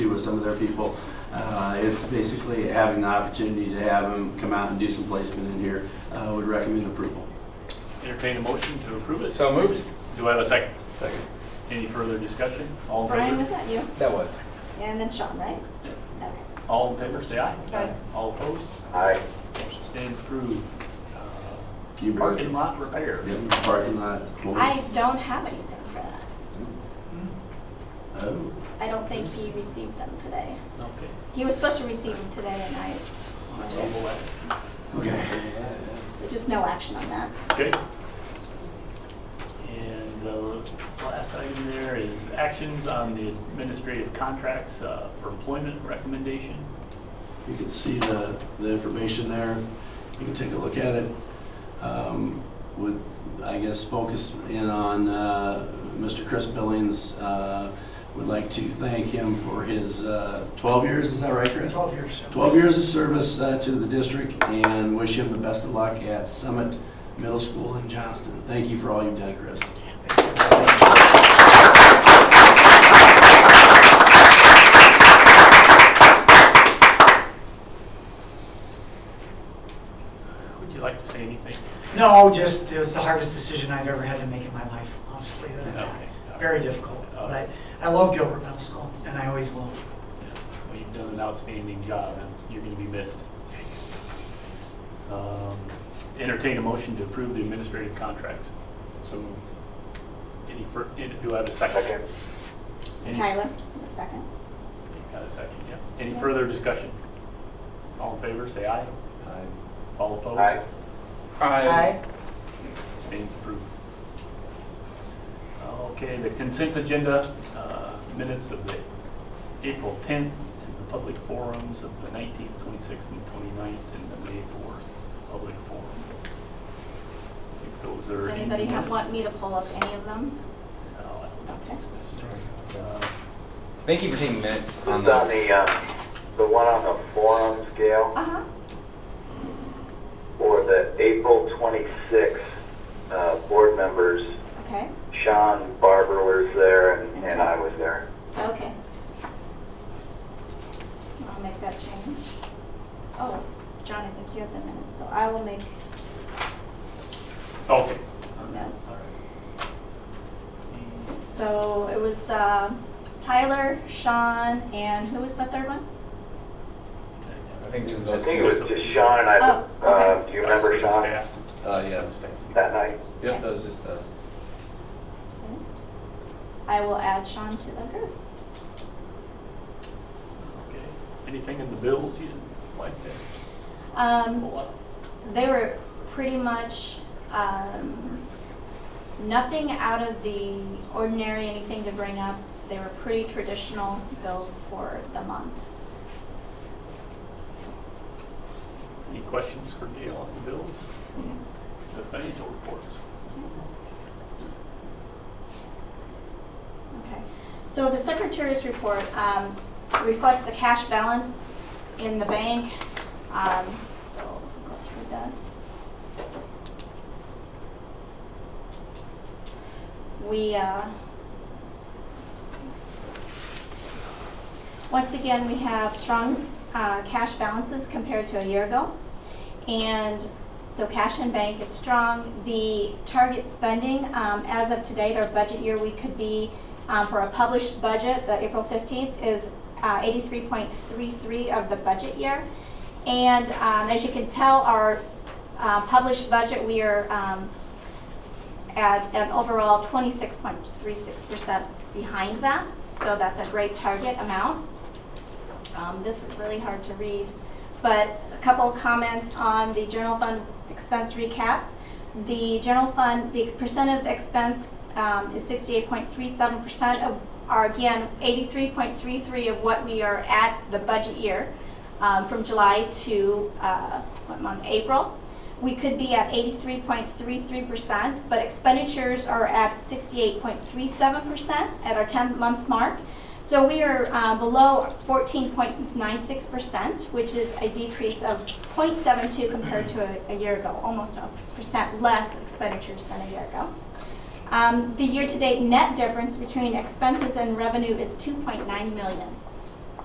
with some of their people. Uh, It's basically having the opportunity to have them come out and do some placement in here. Uh, Would recommend approval. Entertain a motion to approve it. So moved? Do I have a second? Second. Any further discussion? All in Brian, was favor? that you? That was. And then Sean, right? Yeah. Okay. All in favor, say aye. Aye. All opposed? Aye. Motion stands approved. Uh, Can you bring- Parking lot repair. Yeah, Parking lot. I don't have anything for that. Oh, I don't think he received them today. Okay. He was supposed to receive them today and I, I'll table that. okay. so just no action on that. Okay. And the last item there is actions on the administrative contracts uh, for employment recommendation. You can see the, the information there. You can take a look at it. Um, Would, I guess, focus in on uh, Mr. Chris Billings. Uh, Would like to thank him for his uh, 12 years, is that right, Chris? 12 years. 12 years of service uh, to the district and wish him the best of luck at Summit Middle School in Johnston. Thank you for all you've done, Chris. Would you like to say anything? No, just, it's the hardest decision I've ever had to make in my life, honestly. Okay. Very difficult, Okay. but I love Gilbert Middle School, and I always will. Well, You've done an outstanding job, and you're going to be missed. Um, Entertain a motion to approve the administrative contracts. So moved. Any, fir- any- do I have a second? Any- Tyler, the second. Got a second, yeah. Any further discussion? All in favor, say aye. All opposed? Aye. Aye. Stands approved. Okay, the consent agenda, uh, minutes of the April 10th, and the public forums of the 19th, 26th, and 29th, and the May 4th public forum. If those are. Does in the anybody have, minutes. want me to pull up any of them? No, I don't think Okay. it's necessary. Uh, Thank you for taking minutes This on is on those. the, uh, the one on the forum scale Uh-huh. for the April 26th, uh, board members, Okay, Sean Barber was there and, and I was there. okay. I'll make that change. Oh, John, I think you have the minutes, so I will make uh, Okay. No. All right. Mm, So it was uh, Tyler, Sean, and who was the third one? I think just I those think it was two. just Sean and I, Oh, okay. uh, do you remember Sean Staff. Uh, yeah. that night? Yep, that was just us. I will add Sean to the group. Okay. Anything in the bills you didn't like that? Um, Pull up? They were pretty much um, nothing out of the ordinary, anything to bring up. They were pretty traditional bills for the month. Any questions for Gail on the bills, the financial reports? Okay, so the secretary's report um, reflects the cash balance in the bank. Um, So we'll go through this. We, uh, once again, we have strong uh, cash balances compared to a year ago. And so cash in bank is strong. The target spending, um, as of today, our budget year, we could be, um, for a published budget, the April 15th, is uh, 83.33 of the budget year. And um, as you can tell, our uh, published budget, we are um, at an overall 26.36% behind that. So that's a great target amount. Um, This is really hard to read, but a couple of comments on the general fund expense recap. The general fund, the percent of expense um, is 68.37% of, are again, 83.33 of what we are at the budget year um, from July to, uh, what month, April. We could be at 83.33%, but expenditures are at 68.37% at our 10-month mark. So we are uh, below 14.96%, which is a decrease of 0.72 compared to a- a year ago, almost a percent less expenditures than a year ago. Um, The year-to-date net difference between expenses and revenue is 2.9 million.